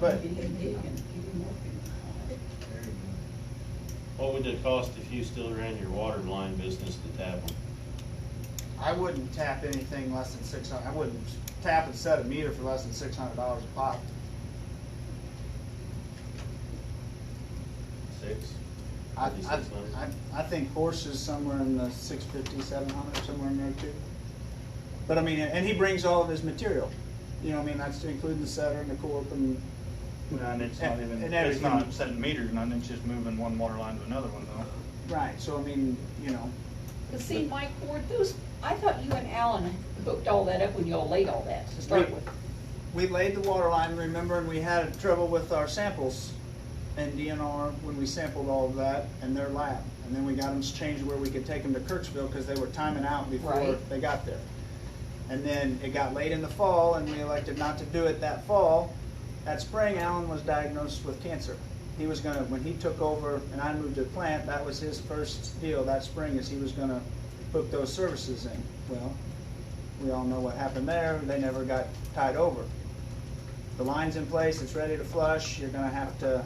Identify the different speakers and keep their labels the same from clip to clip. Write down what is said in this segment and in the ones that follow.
Speaker 1: But
Speaker 2: What would it cost if you still ran your water line business to tap them?
Speaker 1: I wouldn't tap anything less than six hundred, I wouldn't tap and set a meter for less than six hundred dollars a pop.
Speaker 2: Six?
Speaker 1: I,
Speaker 2: At least
Speaker 1: I,
Speaker 2: six months.
Speaker 1: I- I think Horse is somewhere in the six fifty, seven hundred, somewhere in there too. But I mean, and he brings all of his material, you know, I mean, that's including the setter and the corp and,
Speaker 3: And it's not
Speaker 1: And-
Speaker 3: even,
Speaker 1: and
Speaker 3: it's not
Speaker 1: everything.
Speaker 3: setting meters, and it's just moving one water line to another one though.
Speaker 1: right, so I mean, you know,
Speaker 4: But see, Mike Ward, those, I thought you and Alan hooked all that up when y'all laid all that to start
Speaker 1: We-
Speaker 4: with.
Speaker 1: we laid the water line, remember, and we had trouble with our samples and DNR when we sampled all of that and their lab. And then we got them changed where we could take them to Kirksville because they were timing out before
Speaker 4: Right.
Speaker 1: they got there. And then it got late in the fall and we elected not to do it that fall. That spring, Alan was diagnosed with cancer. He was gonna, when he took over and I moved to the plant, that was his first deal that spring is he was gonna hook those services in. Well, we all know what happened there. They never got tied over. The line's in place, it's ready to flush. You're gonna have to,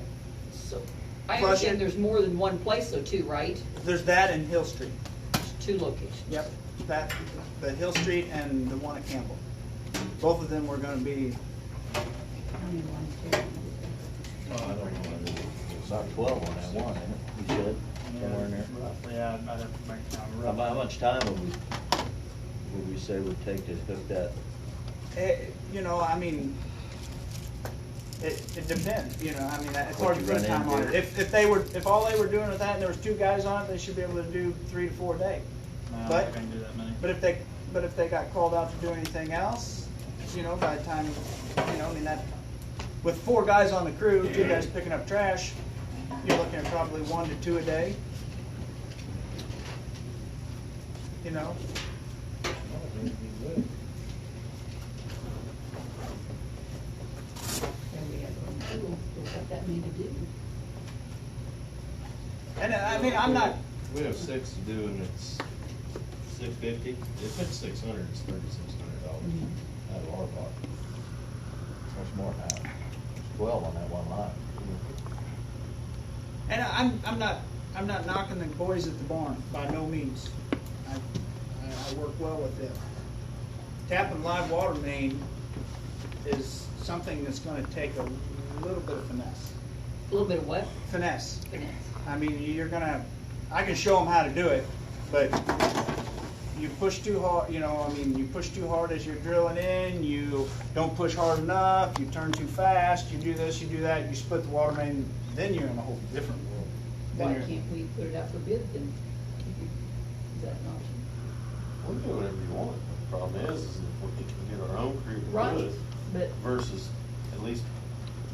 Speaker 4: So, I
Speaker 1: Flush it.
Speaker 4: understand there's more than one place though too, right?
Speaker 1: there's that in Hill Street.
Speaker 4: There's two locations.
Speaker 1: Yep, that, the Hill Street and the one at Campbell. Both of them were gonna be,
Speaker 2: I don't know.
Speaker 5: It's like twelve on that one, isn't it? You said, somewhere in there.
Speaker 3: Roughly, I'd I'd have to make time
Speaker 5: How mu- how
Speaker 3: rough.
Speaker 5: much time would we, would we say would take to hook that?
Speaker 1: eh, you know, I mean, it, it depends, you know, I mean, it's hard
Speaker 5: What
Speaker 1: to
Speaker 5: you
Speaker 1: put
Speaker 5: run
Speaker 1: time on it.
Speaker 5: into.
Speaker 1: If, if they were, if all they were doing with that and there was two guys on it, they should be able to do three to four a day.
Speaker 3: No, I
Speaker 1: But-
Speaker 3: can't do that many.
Speaker 1: But if they, but if they got called out to do anything else, you know, by the time, you know, I mean, that, with four guys on the crew, two guys picking up trash, you're looking at probably one to two a day. You know,
Speaker 4: And we have one pool, but what that mean to do?
Speaker 1: and I mean, I'm not,
Speaker 2: We have six to do and it's six fifty. If it's six hundred, it's thirty-six hundred dollars out of our pocket.
Speaker 5: Much more than that. It's Twelve on that one line.
Speaker 1: and I'm, I'm not, I'm not knocking the boys at the barn, by no means. I, I- I work well with them. Tapping live water main is something that's gonna take a little bit of finesse,
Speaker 4: A little bit of what?
Speaker 1: finesse.
Speaker 4: Finesse.
Speaker 1: I mean, you're gonna, I can show them how to do it, but you push too hard, you know, I mean, you push too hard as you're drilling in, you don't push hard enough, you turn too fast, you do this, you do that, you split the water main, then you're in a whole different world. Then
Speaker 4: Why
Speaker 1: you're-
Speaker 4: can't we put it out for bid then? Is that an option?
Speaker 2: We can do whatever you want. The Problem is, is if we can get our own crew to do
Speaker 4: Right,
Speaker 2: it
Speaker 4: but
Speaker 2: versus at least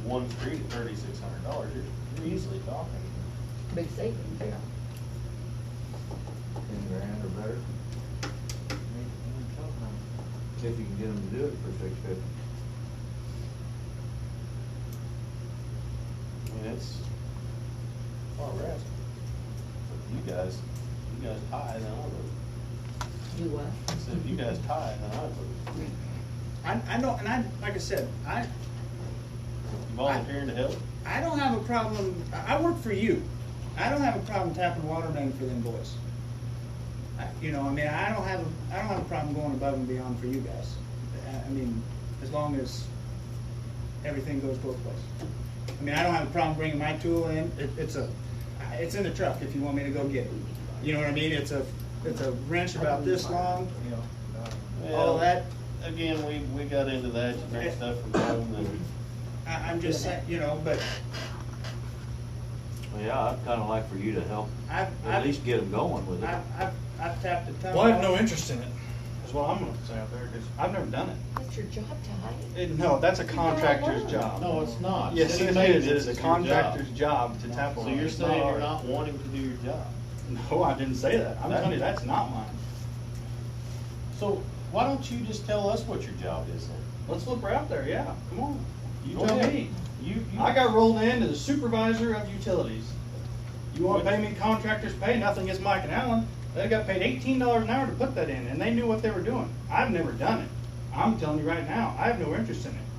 Speaker 2: one crew at thirty-six hundred dollars, you're, you're easily talking.
Speaker 4: big savings, yeah.
Speaker 5: Ten grand or better. If you can get them to do it for six fifty.
Speaker 2: I mean, it's, far we're asking. You guys, you guys high, then I would.
Speaker 4: Do what?
Speaker 2: I said, if you guys tie, then I would.
Speaker 1: I, I don't, and I, like I said, I,
Speaker 2: You volunteering to help?
Speaker 1: I don't have a problem, I I work for you. I don't have a problem tapping water main for them boys. I- You know, I mean, I don't have, a I don't have a problem going above and beyond for you guys. I- I mean, as long as everything goes both ways. I mean, I don't have a problem bringing my tool in, it, it's a, I- it's in the truck if you want me to go get it. You know what I mean? It's a, it's a wrench about this long, all that.
Speaker 2: Again, we, we got into that, you bring stuff from home, and,
Speaker 1: I, I'm just saying, you know, but
Speaker 5: Well, yeah, I'd kinda like for you to help,
Speaker 1: I've,
Speaker 5: at
Speaker 1: I've,
Speaker 5: least get them going with it.
Speaker 1: I've, I've, I've tapped a ton.
Speaker 3: Well, I have
Speaker 1: of-
Speaker 3: no interest in it, is what I'm gonna say out there, because I've never done it.
Speaker 4: That's your job, Ty.
Speaker 3: It- No, that's a contractor's job.
Speaker 2: no, it's not.
Speaker 3: Yes,
Speaker 2: City
Speaker 3: it
Speaker 2: made
Speaker 3: is, it is a
Speaker 2: It's your job.
Speaker 3: contractor's job to tap a
Speaker 2: So
Speaker 3: line.
Speaker 2: you're
Speaker 3: It's not
Speaker 2: saying you're
Speaker 3: ours.
Speaker 2: not wanting to do your job?
Speaker 3: No, I didn't say that, I'm
Speaker 2: That-
Speaker 3: telling you, that's not mine.
Speaker 2: So why don't you just tell us what your job is then?
Speaker 3: Let's look right out there, yeah, come on. You
Speaker 2: Go
Speaker 3: tell
Speaker 2: ahead.
Speaker 3: me.
Speaker 2: You, you.
Speaker 3: I got rolled in as supervisor of utilities. You wanna pay me contractors pay, nothing against Mike and Allen, they got paid eighteen dollars an hour to put that in, and they knew what they were doing. I've never done it. I'm telling you right now, I have no interest in it.